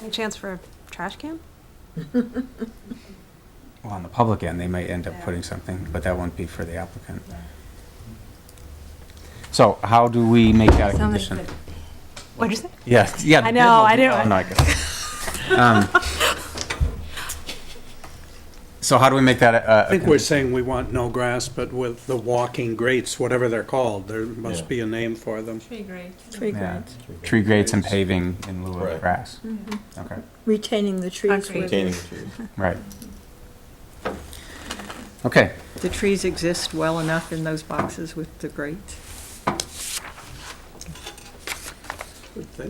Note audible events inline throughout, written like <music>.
Any chance for a trash can? Well, on the public end, they might end up Yeah. putting something, but that won't be for the applicant. So how do we make that a Somebody condition? put- What'd you say? Yes, yeah. I know, I didn't- Oh, no, I guess. Um, So how do we make that a- a? I think we're saying we want no grass, but with the walking grates, whatever they're called, there must be a name for them. Tree grade. Tree Yeah. grades. Tree grates and paving in lieu of Right. grass. Mm-hmm. Okay, Retaining the trees. Concrete. with- Retaining trees. right. Okay, The trees exist well enough in those boxes with the grates.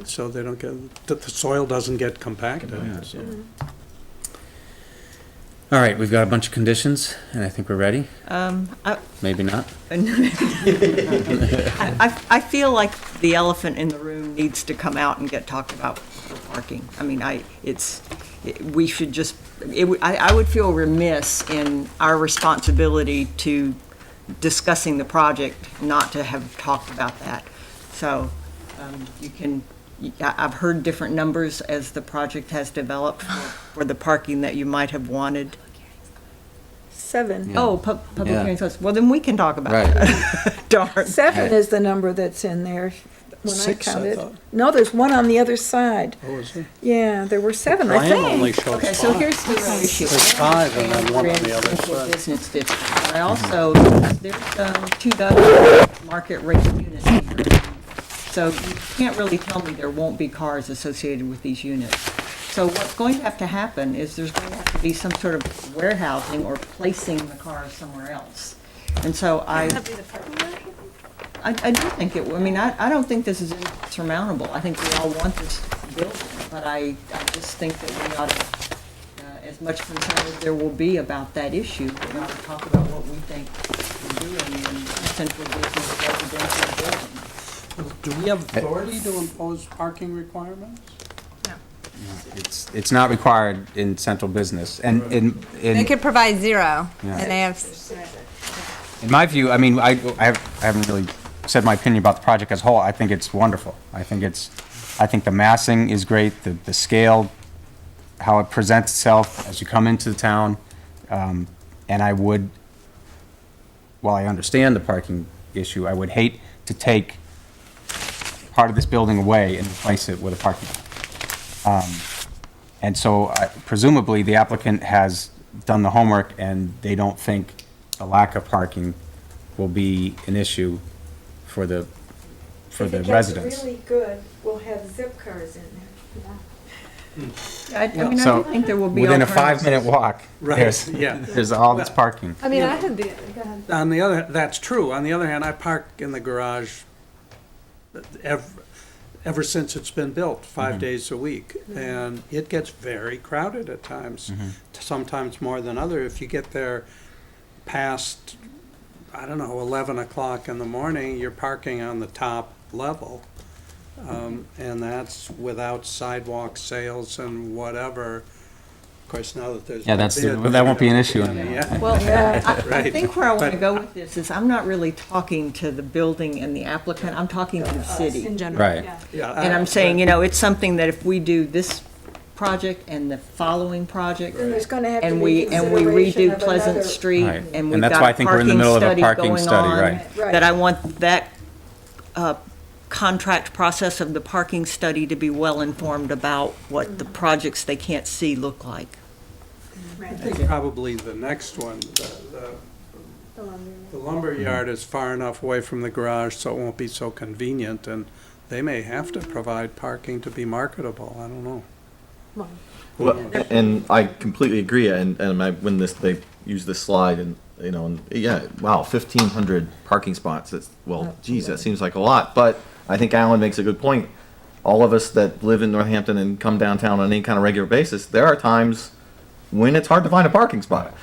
So they don't get, that the soil doesn't get compacted. so. all right, we've got a bunch of conditions, and I think we're ready, Um, I, maybe not. I, I feel like the elephant in the room needs to come out and get talked about for parking. I mean, I, it's, it- we should just, it, would- I, I would feel remiss in our responsibility to discussing the project, not to have talked about that. So, um, you can, you- I- I've heard different numbers as the project has developed for for the parking that you might have wanted. Seven. Yeah. Oh, pub- public Yeah. hearings, closed. well, then we can talk about Right. it. <laughs> Darn. Seven is the number that's in there when I Six, I counted. thought. No, there's one on the other side. Oh, is it? Yeah, there were seven, I Brian think. only shows Okay, so five. here's the real issue. There's five and then one on the other Residential side. Business district, but I also, there's um, two dozen market rate units. here. So you can't really tell me there won't be cars associated with these units. So what's going to have to happen is there's going to have to be some sort of warehousing or placing the cars somewhere else. And so I. That'd be the parking lot? I, I do think it, I mean, I, I don't think this is insurmountable. I think we all want this building, but I, I just think that we ought to, uh, as much concern as there will be about that issue, we ought to talk about what we think we're doing in central business residential building. Do we have authority to impose parking requirements? It's, it's not required in central business, and in, in. They could provide zero, Yeah. and they have In my view, I mean, I, I have- I haven't really said my opinion about the project as a whole. I think it's wonderful. I think it's, I think the massing is great, the, the scale, how it presents itself as you come into the town. Um, And I would, while I understand the parking issue, I would hate to take part of this building away and replace it with a parking lot. And so I- presumably, the applicant has done the homework, and they don't think a lack of parking will be an issue for the, for the residents. If it gets really good, we'll have zip cars in there. I, I mean, I So, do think there will be Within a alternatives. five-minute walk, Right, there's, yeah. there's all this parking. I mean, I had the, go ahead. On the other, that's true. On the other hand, I park in the garage ever, ever since it's been built, Mm-hmm. five days a week. Mm-hmm. And it gets very crowded at times, Mm-hmm. sometimes more than other. If you get there past, I don't know, eleven o'clock in the morning, you're parking on the top level. Um, and that's without sidewalk sales and whatever. Of course, now that there's. Yeah, that's, no bid, that won't be an issue <laughs> Yeah. Well, I- I Right. think where I want to But- go with this is I'm not really talking to the building and the applicant, I'm talking to the city. In general. Right. yeah. Yeah, I- And I'm saying, you know, it's something that if we do this project and the following project, Then there's gonna have to and we, be and we consideration redo of Pleasant another- Street, Right. and And we've that's got why I a think we're in the parking middle of a study parking going study, on. right. Right. That I want that, uh, contract process of the parking study to be well-informed about what Mm-hmm. the projects they can't see look like. I think probably the next one, the- the the lumberyard is far enough away from the garage, so it won't be so convenient, and they may have to provide parking to be marketable, I don't know. Well, and I completely agree. And and I, when this they use this slide and you know and yeah, wow, fifteen hundred parking spots. That's well, geez, that seems like a lot. But I think Alan makes a good point. All of us that live in Northampton and come downtown on any kind of regular basis, there are times when it's hard to find a parking spot.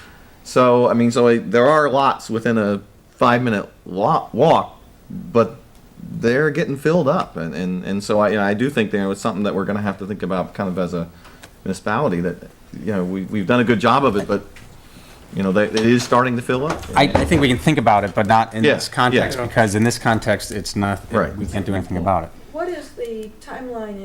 So I mean, so I, there are lots within a five-minute lo- walk, but they're getting filled up, and and, and so I you know, I do think there was something that we're going to have to think about, kind of as a municipality that you know we we've done a good job of it, but you know they, it is starting to fill up. I, I think we can think about it, but not in Yeah, this context, yeah. because in this context, it's not, Right. we can't do anything about it. What is the timeline